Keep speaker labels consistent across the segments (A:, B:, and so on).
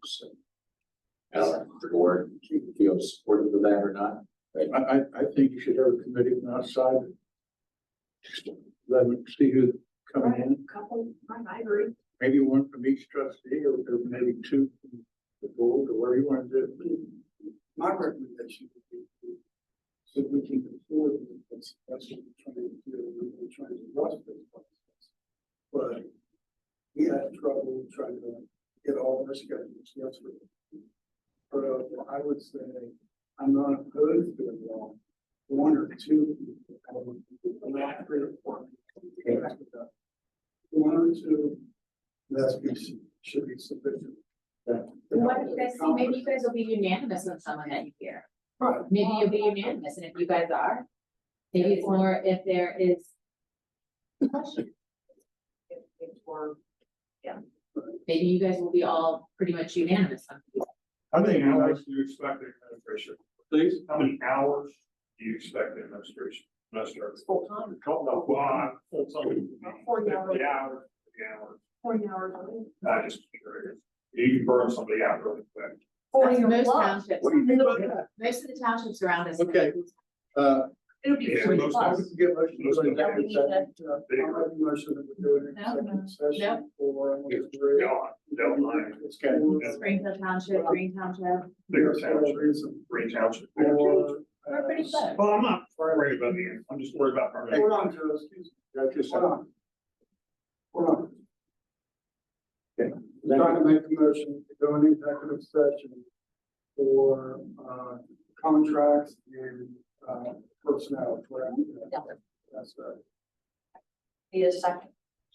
A: percent. Uh, the board, do you feel supportive of that or not?
B: I, I, I think you should have a committee from outside. Just Let them see who's coming in,
C: Couple, I I agree.
B: maybe one from each trustee, or or maybe two from the board, or whatever you want to do.
D: My recommendation would be to- so we can afford it, that's, that's what we're trying to do, we're trying to rush this process. But we had trouble trying to get all our schedules yesterday. But uh, I would say, I'm not opposed to it all, one or two, I would, not three or four. One or two, that's, be- should be sufficient.
C: Why don't you guys see, maybe you guys will be unanimous on someone that you hear.
D: Right.
C: Maybe you'll be unanimous, and if you guys are, maybe it's more if there is. question. Maybe you guys will be all pretty much unanimous on.
E: How many hours do you expect the administration?
B: Please.
E: How many hours do you expect the administration? Minister.
F: Full time,
E: Well, I-
F: Forty hours.
E: Fifty hours, fifty hours.
F: forty hours a week.
E: I just curious. You can burn somebody out really quick.
F: Forty or
C: Most
F: plus.
C: townships,
B: What do you mean by that?
C: most of the townships around us.
B: Okay. Uh,
F: It'll be
E: Yeah,
F: forty
E: most
F: plus.
E: times.
B: get motion.
E: Let's go.
F: Yeah, we need that.
D: I'll make a motion that uh, we do an executive session for.
E: Don't, don't lie.
B: It's kind
D: of-
C: Springfield Township, Green Township,
E: Bigger
D: For
E: township,
D: reason.
E: green township. bigger township.
D: Or,
C: we're pretty
D: uh,
C: close.
E: Well, I'm not worried about the end. I'm just worried about permanent.
D: Hold on, Joe, excuse
B: Got
D: me, hold on. Hold on, I'm
B: Thank
D: trying to make a motion to go into executive session for, uh, contracts and, uh, personnel, correct?
F: Yeah.
D: That's right.
F: Need a second.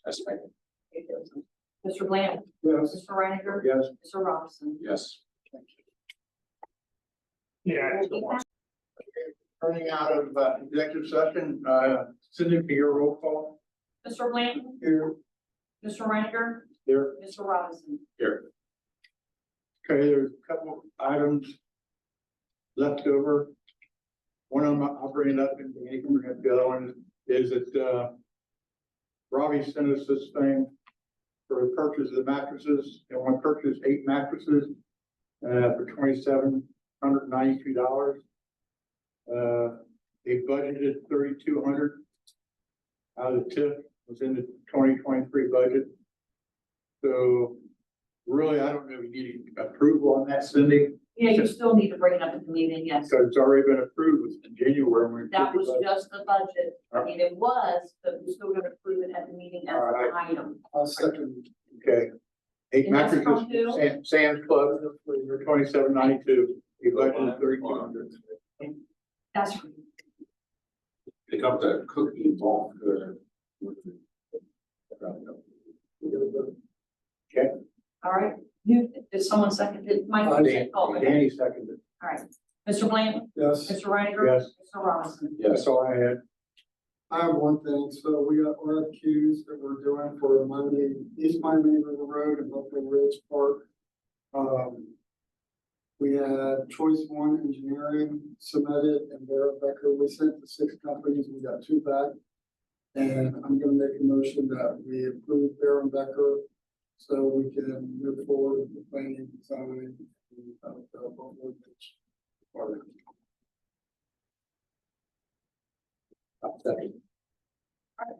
A: Yes, ma'am.
F: Mr. Bland,
D: Yes,
F: Mr. Reiniger,
B: Yes.
F: Mr. Robinson.
A: Yes.
E: Yeah. I just don't want-
B: Turning out of uh, executive session, uh, Cindy, for your roll call
F: Mr. Bland,
B: here,
F: Mr. Reiniger,
B: there.
F: Mr. Robinson.
B: Okay, there's a couple of items left over. One of them I'll bring it up in the income, and the other one is that, uh, Robbie sent us this thing for the purchase of the mattresses, and want to purchase eight mattresses, uh, for twenty-seven hundred ninety-two dollars. Uh, they budgeted thirty-two hundred out of the tip, was in the twenty twenty-three budget. So really, I don't know if you need approval on that, Cindy,
F: Yeah, you still need to bring it up at the meeting, yes.
B: because it's already been approved in January. when we
F: That
B: approved
F: was
B: the budget.
F: just the budget. I mean, it was, but we're still gonna approve it at the meeting as an item.
D: I'll second.
B: Uh, Okay. Eight
F: And that's
B: mattresses,
F: from who?
B: Sam, Sam's Club, for twenty-seven ninety-two, he budgeted thirty-two hundred.
F: That's
A: Pick up the cookie ball. uh, with the-
F: all right. You, did someone second it? Mike, you said, oh, okay.
B: Danny seconded,
F: all right. Mr. Bland,
D: Yes.
F: Mr. Reiniger.
B: yes,
F: Mr. Robinson.
B: that's
A: Yes,
B: all I had.
D: I have one thing, so we got RFQs that we're doing for Monday, East Miami River Road and Buffalo Ridge Park. Um, we had choice one engineering submitted and Vera Becker, we sent to six companies, we got two back. And I'm gonna make a motion that we approve Vera Becker, so we can move forward with the planning, design, and, uh, Buffalo Ridge. Park.
F: All right,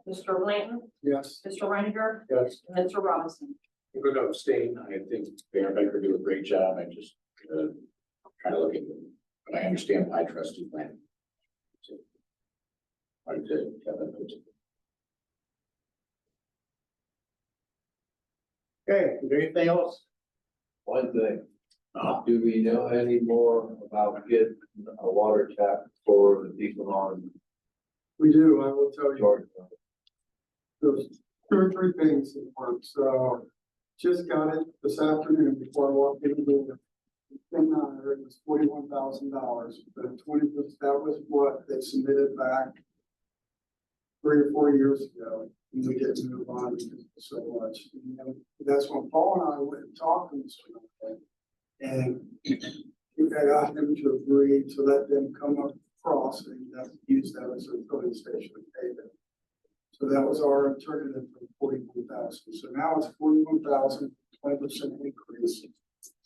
F: Mr. Bland,
D: Yes.
F: Mr. Reiniger,
B: Yes,
F: and Mr. Robinson.
A: I'm going to abstain. I think Mayor Baker did a great job. I just, uh, try to look at them, but I understand my trustee plan. So, I did, Kevin, it's-
B: okay, is there anything else?
G: One thing,
B: Uh,
G: do we know any more about getting a water tap for the people on
D: We do, I will tell you.
G: Georgia?
D: there's two or three things in work, so just got it this afternoon before I walked in the door. The Thing on there was forty-one thousand dollars, but twenty, that was what they submitted back three or four years ago, and we didn't move on because it was so much. You know, That's when Paul and I went and talked to Mr. Duncan, and we got him to agree to let them come across and use that as a filling station and pay them. So that was our alternative for forty-one thousand. So now it's forty-one thousand, twenty percent increase.